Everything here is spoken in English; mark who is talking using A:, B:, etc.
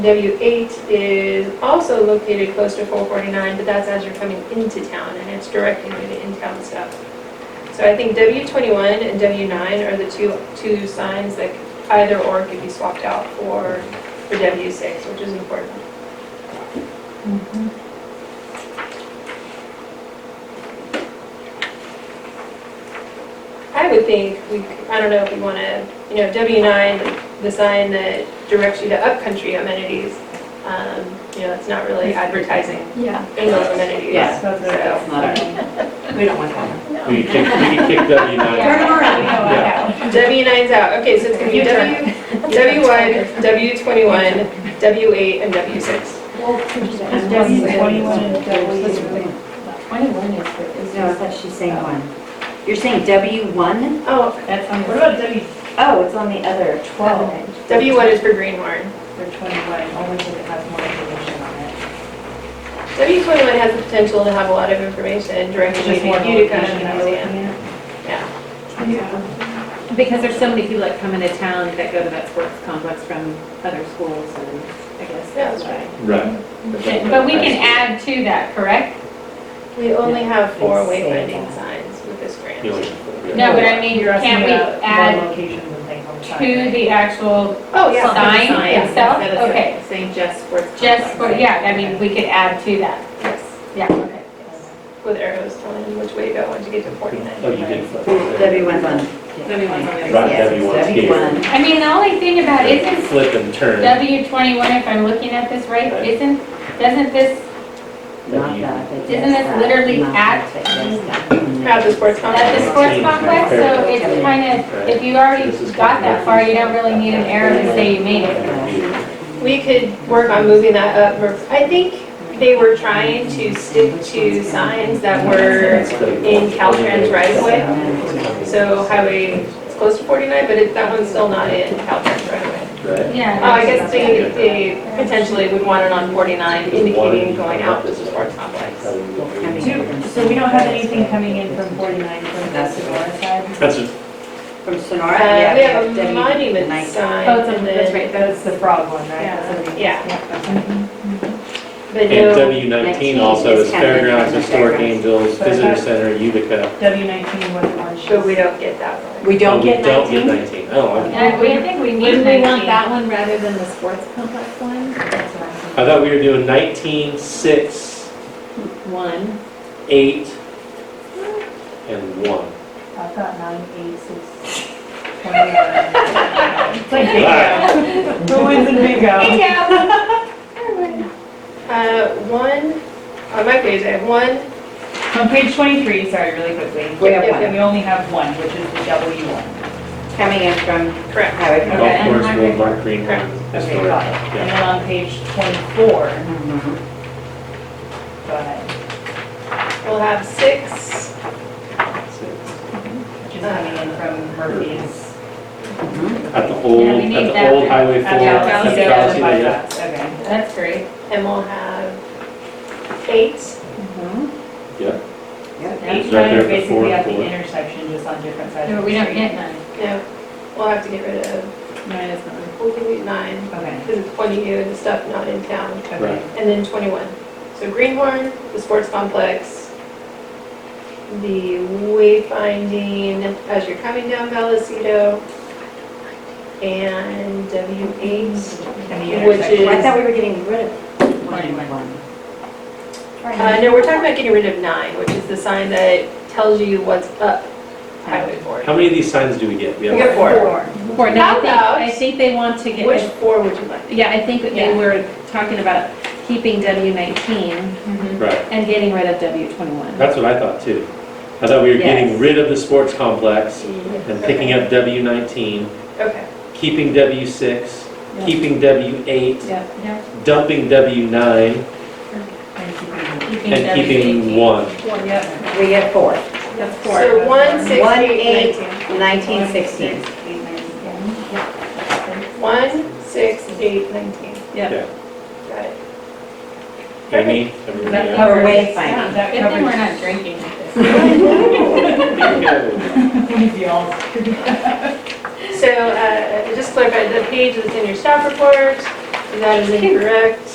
A: W8 is also located close to 449, but that's as you're coming into town, and it's directing you to in-town stuff. So I think W21 and W9 are the two, two signs that either or could be swapped out for, for W6, which is important. I would think we, c- I don't know if we want to, you know, W9, the sign that directs you to upcountry amenities, um, you know, it's not really advertising
B: Yeah.
A: in those amenities.
C: Yes,
A: So-
C: that's not, we don't want that.
D: We can kick, we can kick W
A: Yeah.
D: nine.
B: Turn 'em around.
D: Yeah.
A: W nine's out, okay, so it's gonna be
B: You
A: W,
B: turn.
A: W one, W twenty-one, W eight, and W six.
B: Oh, W twenty-one and W.
E: Twenty-one is the, is
C: No, I
E: the.
C: thought she's saying one. You're saying W one?
A: Oh,
E: That's on
B: What
E: the
B: about W?
C: Oh, it's on the other twelve.
E: twelve.
A: W one is for Greenhorn.
E: For twenty-one, only because it has more information on it.
A: W twenty-one has the potential to have a lot of information directly to
E: Just more
A: Utica
E: location
A: and
E: that
A: the
E: we're
A: museum.
E: looking at.
A: Yeah,
B: Yeah.
F: Because there's so many people that come into town that go to that sports complex from other schools and I guess
A: Yeah,
F: that's
A: that's
F: why.
D: Right.
B: But we can add to that, correct?
A: we only have four
C: They say
A: wayfinding
C: that.
A: signs with this grant.
D: You only-
B: No, but I mean,
E: You're asking
B: can't we
E: about
B: add
E: One locations and things on the
B: to
E: side.
B: the actual
A: Oh, yeah.
B: sign
F: Sign,
B: itself?
F: instead of
B: Okay,
F: Saying just sports complex.
B: just for, yeah, I mean, we could add to that,
A: Yes,
B: yeah, okay.
A: with arrows telling you which way to go once you get to
D: Oh,
A: forty-nine.
D: you did. flip it.
C: W one's on.
F: Maybe one's on the other
D: Right,
F: side.
D: W one's
C: W one.
B: I mean, the only thing about, isn't
D: Flip and turn.
B: W twenty-one, if I'm looking at this right,
D: Right.
B: isn't, doesn't this,
C: Not that, but
B: Isn't
C: yes,
B: this
C: that,
B: literally
C: not
B: at-
C: that, but yes, that.
A: Not the sports
B: at
A: complex.
B: the sports complex, so it's kind of, if you already got that far, you don't really need an arrow to say you made it.
A: We could work on moving that up. more. I think they were trying to stick to signs that were in Caltrans right of way. So highway, it's close to 49, but it- that one's still not in Caltrans right of way.
D: Right.
B: Yeah.
A: Oh, I guess they, they potentially would want it on 49 indicating going out Uh, to the sports complex.
E: Two- So we don't have anything coming in from forty-nine from the Sonora side?
D: That's a
C: From Sonora?
A: Uh,
C: yeah,
A: We have a
C: W-
A: monument
C: nice.
A: sign
F: Oh, it's
A: and
F: on, that's
A: then,
F: right, that's
E: That's the frog one, right?
F: Yeah.
E: That's what we-
A: Yeah. but
D: And
A: no,
D: W nineteen
C: 19
D: also
C: is
D: is
C: kind of
D: fairgrounds,
C: different.
D: historic angels,
E: But I
D: visitor
E: thought-
D: center, Utica.
E: W nineteen was the one she.
A: but we don't get that one.
C: We
D: Oh,
C: don't get
D: We don't get
C: nineteen?
D: nineteen. Oh, I'm-
B: And we, I think we need
F: Wouldn't
B: nineteen.
F: we want that one rather than the sports complex one?
E: That's what I'm saying.
D: I thought we were doing nineteen, six,
F: One,
D: eight, and one.
E: I've got nine, eight, six, twenty-one. It's like
D: Wow.
E: bingo. Who wins in bingo?
B: Yeah.
A: Uh, One, on my page, I have one,
E: On page twenty-three, sorry, really quickly.
C: We have
E: We only have one, which is the W one.
C: Coming in from
A: correct.
C: highway.
D: Golf
E: Okay.
D: course, Woodmark, Green
A: Okay.
E: Okay,
D: historic.
E: got it. And
D: Yeah.
E: then on page twenty-four,
C: Mhm.
E: go ahead,
A: We'll have six,
D: Six.
E: which is coming in from Murphy's.
C: Mhm.
D: At the old,
B: Yeah, we need
D: at the
B: that.
D: old Highway 4.
E: At
B: Yeah,
D: at
B: Galaxy
D: the
B: Galaxy,
D: Galaxy, yeah.
E: Okay.
B: That's great.
A: and we'll have eight.
C: Mhm.
D: Yeah.
E: Each
C: Yep.
E: time
D: right there
E: you're
D: at the
E: basically at
D: four.
E: the intersection, just on different sides.
B: No,
E: of
B: we
E: the
B: don't
E: street.
B: get none.
A: No, we'll have to get rid of,
F: nine is not.
A: we'll delete nine,
E: Okay,
A: because it's pointing you and the stuff not in town,
E: okay.
A: and then 21. So Greenhorn, the sports complex, the wayfinding as you're coming down Vallecito, and W8.
E: And the
A: Which
E: intersection.
C: I thought we were getting rid of
B: Twenty-one.
C: one.
A: Uh, no, we're talking about getting rid of nine, which is the sign that tells you what's up Highway 4.
D: How many of these signs do we get?
A: We get four.
F: Four, no,
A: How
F: I think,
A: about-
F: I think they want to get.
A: Which four would you like?
F: Yeah, I think that they
A: Yeah.
F: were talking about keeping W nineteen
D: Right,
F: and getting rid of W twenty-one.
D: that's what I thought too. I thought we were getting rid of the sports complex and picking up W nineteen,
A: Okay.
D: keeping W six,
F: Yeah.
D: keeping W eight,
F: Yeah.
D: dumping W nine,
E: And keeping-
D: and keeping one.
E: Well, yeah.
C: We get four.
F: That's four.
A: So one, six,
C: One,
A: eight,
C: eight.
A: nineteen.
C: Nineteen sixteen.
A: One, six, eight, nineteen.
F: Yeah.
A: Got it.
D: Amy, everybody
E: That
D: out?
C: Or
E: covers-
C: wayfinding.
E: That
B: Good thing we're
E: covers
B: not drinking at this.
E: the all.
A: So, uh, just clarify, the page that's in your staff report, That is incorrect.